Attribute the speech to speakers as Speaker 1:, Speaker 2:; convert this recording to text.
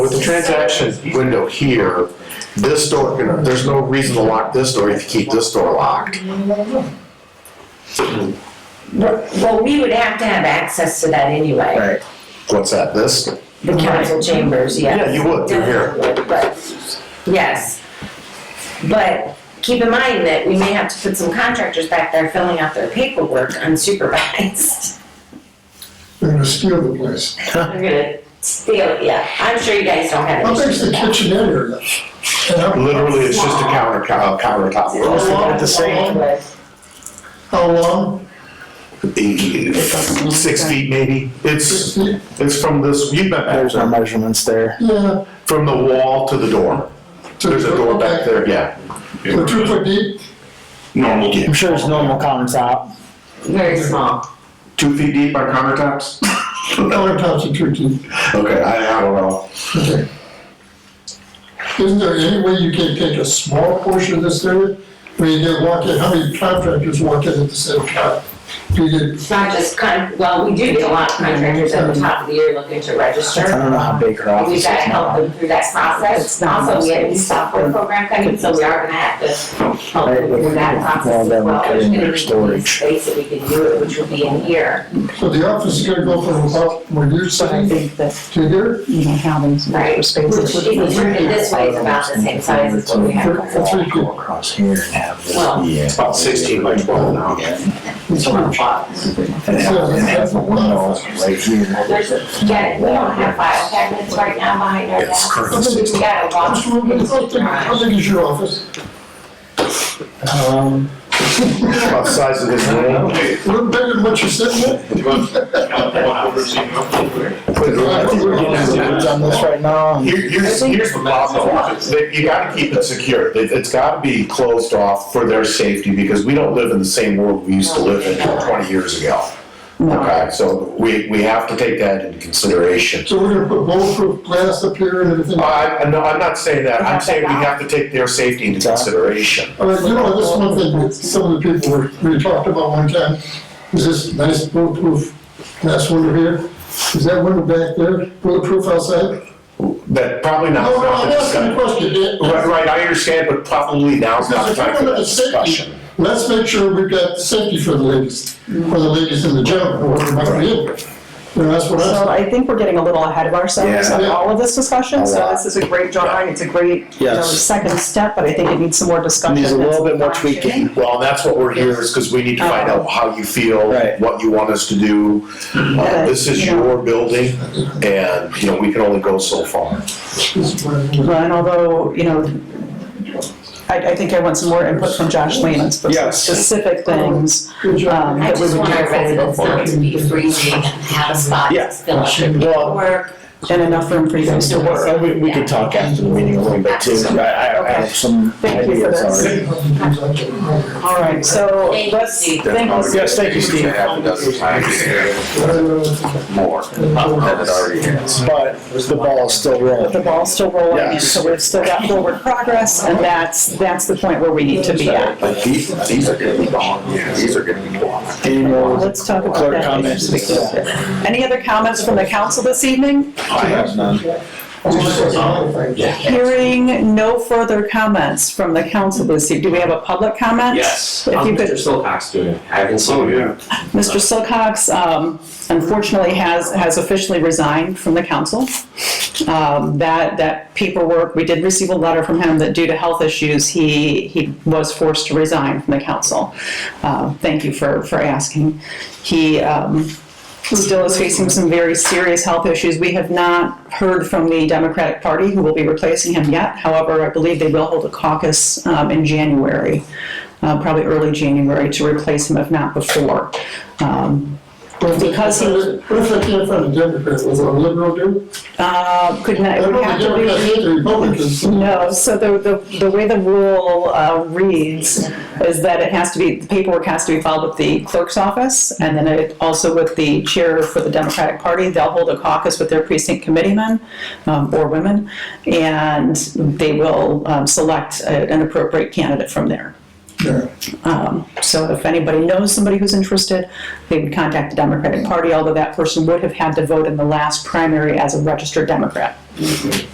Speaker 1: with the transaction window here, this door, you know, there's no reason to lock this door if you keep this door locked.
Speaker 2: But- Well, we would have to have access to that anyway,
Speaker 3: Right.
Speaker 1: What's that, this?
Speaker 2: the council chambers,
Speaker 1: Yeah,
Speaker 2: yes.
Speaker 1: you would, you're here.
Speaker 2: But, yes. But keep in mind that we may have to put some contractors back there filling out their paperwork unsupervised.
Speaker 4: They're gonna steal the place.
Speaker 2: They're gonna steal, yeah, I'm sure you guys don't have
Speaker 4: How
Speaker 2: an issue
Speaker 4: big's
Speaker 2: with
Speaker 4: the
Speaker 2: that.
Speaker 4: kitchen in area? And how,
Speaker 1: Literally, it's just a counter, co- countertop.
Speaker 4: Well,
Speaker 3: At the same-
Speaker 4: how long?
Speaker 1: Six feet maybe. It's, it's from this, you've been back
Speaker 3: There's no
Speaker 1: there,
Speaker 3: measurements there.
Speaker 4: Yeah.
Speaker 1: from the wall to the door.
Speaker 4: to-
Speaker 1: There's a door back there, yeah.
Speaker 4: So two foot deep?
Speaker 1: Normal.
Speaker 3: I'm sure it's normal countertop.
Speaker 2: Very small.
Speaker 1: Two feet deep on countertops?
Speaker 4: Countertops are two deep.
Speaker 1: Okay, I, I don't know.
Speaker 4: Okay. Isn't there any way you can take a small portion of this area? Where you get walk in, how many contractors walk in at the same time? Do you get,
Speaker 2: It's not just con, well, we do get a lot of contractors at the top of the year looking to register.
Speaker 3: I don't know how big her
Speaker 2: And
Speaker 3: office
Speaker 2: We've
Speaker 3: is
Speaker 2: got to help
Speaker 3: now.
Speaker 2: them through that process.
Speaker 3: It's not
Speaker 2: Also, we have a new
Speaker 3: most-
Speaker 2: software program coming, so we are gonna have to help
Speaker 3: Right,
Speaker 2: them through that
Speaker 3: with-
Speaker 2: process
Speaker 3: well,
Speaker 2: as
Speaker 3: then we
Speaker 2: well.
Speaker 3: put
Speaker 2: There's
Speaker 3: in
Speaker 2: gonna
Speaker 3: their
Speaker 2: be
Speaker 3: storage.
Speaker 2: Space that we can do it, which will be in here,
Speaker 4: so the office is gonna go from about where you're
Speaker 5: But I
Speaker 4: sitting
Speaker 5: think that,
Speaker 4: to here?
Speaker 5: you know, how these
Speaker 2: right?
Speaker 5: extra spaces.
Speaker 2: If you turn it this way, it's about the same size as what we have.
Speaker 4: For- for three
Speaker 3: Go
Speaker 4: people.
Speaker 3: across here and have this.
Speaker 2: Well-
Speaker 3: yeah.
Speaker 1: About sixteen by twelve now.
Speaker 3: It's around five. And have, and have the window right here.
Speaker 2: There's, a- yeah, we don't have file cabinets right now behind our
Speaker 3: It's
Speaker 2: desk.
Speaker 3: crazy.
Speaker 2: We got a
Speaker 4: How big
Speaker 2: lot.
Speaker 4: how big is your office?
Speaker 3: Um,
Speaker 1: About the size of this room.
Speaker 4: A little bigger than what you're sitting in?
Speaker 3: I've done this right now. and-
Speaker 1: Here- Here's, here's the problem, They- you gotta keep it secure, It- it's gotta be closed off for their safety, because we don't live in the same world we used to live in twenty years ago. Okay, so we, we have to take that into consideration. Uh,
Speaker 4: So we're gonna put bulletproof glass up here and everything? All
Speaker 1: I, I- no, I'm not saying that, I'm saying we have to take their safety into consideration.
Speaker 4: right, you know, this is one thing that some of the people were, we talked about one time, is this nice bulletproof glass window here? Is that window back there bulletproof outside?
Speaker 1: That probably not.
Speaker 4: No, no, I'm asking a question,
Speaker 1: Right,
Speaker 4: Dan.
Speaker 1: right, I understand, but probably now's not
Speaker 4: Because
Speaker 1: the
Speaker 4: if we're
Speaker 1: time for
Speaker 4: gonna
Speaker 1: that
Speaker 4: have
Speaker 1: discussion.
Speaker 4: safety, let's make sure we've got safety for the ladies, for the ladies in the gym, or whatever might be in there. You know, that's what
Speaker 6: So
Speaker 4: I'm,
Speaker 6: I think we're getting a little ahead of ourselves on
Speaker 4: Yeah.
Speaker 6: all of this discussion,
Speaker 3: A
Speaker 6: so
Speaker 3: lot.
Speaker 6: this is a great drawing, it's a great, you know,
Speaker 3: Yes.
Speaker 6: second step, but I think it needs some more discussion.
Speaker 3: Needs a little bit more tweaking.
Speaker 1: Well, that's what we're here is because we need to find out how you feel,
Speaker 3: Right.
Speaker 1: what you want us to do. Uh, This is your building and, you know, we can only go so far.
Speaker 4: this is what I'm.
Speaker 6: Well, And although, you know, I, I think I want some more input from Josh Lehman, it's
Speaker 3: Yes.
Speaker 6: specific things.
Speaker 4: Good job.
Speaker 6: Um,
Speaker 2: I
Speaker 6: that we
Speaker 2: just
Speaker 6: would
Speaker 2: want
Speaker 6: do
Speaker 2: our residents not to be freezing and have a spot
Speaker 3: Yeah.
Speaker 2: to fill up their paperwork.
Speaker 6: And enough room for you guys to work.
Speaker 3: And we, we could talk after the meeting a little bit too. I, I I have some
Speaker 6: Thank you for
Speaker 3: ideas
Speaker 6: this.
Speaker 3: already.
Speaker 6: All right, so
Speaker 2: Thank you,
Speaker 6: let's,
Speaker 2: Steve.
Speaker 6: thank you.
Speaker 3: Yes, thank you, Steve.
Speaker 7: more than it already is.
Speaker 3: But the ball is still
Speaker 6: But the
Speaker 3: rolling.
Speaker 6: ball's still rolling, and
Speaker 3: Yes.
Speaker 6: so we've still got forward progress, and that's, that's the point where we need to be at.
Speaker 7: But these, these are gonna be gone, these are gonna be gone.
Speaker 3: Any more
Speaker 6: Let's talk about
Speaker 3: clerk
Speaker 6: that.
Speaker 3: comments?
Speaker 6: Any other comments from the council this evening?
Speaker 3: I have none.
Speaker 6: Hearing no further comments from the council this evening. Do we have a public comment?
Speaker 8: Yes,
Speaker 6: If
Speaker 8: how's
Speaker 6: you
Speaker 8: Mr.
Speaker 6: could,
Speaker 8: Silcox doing? I haven't
Speaker 3: Oh,
Speaker 8: seen him.
Speaker 6: Mr. Silcox um, unfortunately has, has officially resigned from the council. Um, That, that paperwork, we did receive a letter from him that due to health issues, he, he was forced to resign from the council. Uh, Thank you for, for asking. He, um, still is facing some very serious health issues. We have not heard from the Democratic Party who will be replacing him yet. However, I believe they will hold a caucus um, in January, uh, probably early January, to replace him if not before. Um,
Speaker 4: But if they-
Speaker 6: Because he-
Speaker 4: What if I can't find a Democrat, was it a liberal dude?
Speaker 6: uh, Could not,
Speaker 4: I
Speaker 6: it
Speaker 4: don't
Speaker 6: would
Speaker 4: know,
Speaker 6: have
Speaker 4: the
Speaker 6: to
Speaker 4: Democrats
Speaker 6: be.
Speaker 4: hate the Republicans.
Speaker 6: No, so the, the, the way the rule uh, reads is that it has to be, the paperwork has to be filed with the clerk's office and then it also with the chair for the Democratic Party. They'll hold a caucus with their precinct committeemen um, or women and they will um, select a- an appropriate candidate from there.
Speaker 4: Yeah.
Speaker 6: Um, So if anybody knows somebody who's interested, they would contact the Democratic Party, although that person would have had to vote in the last primary as a registered Democrat.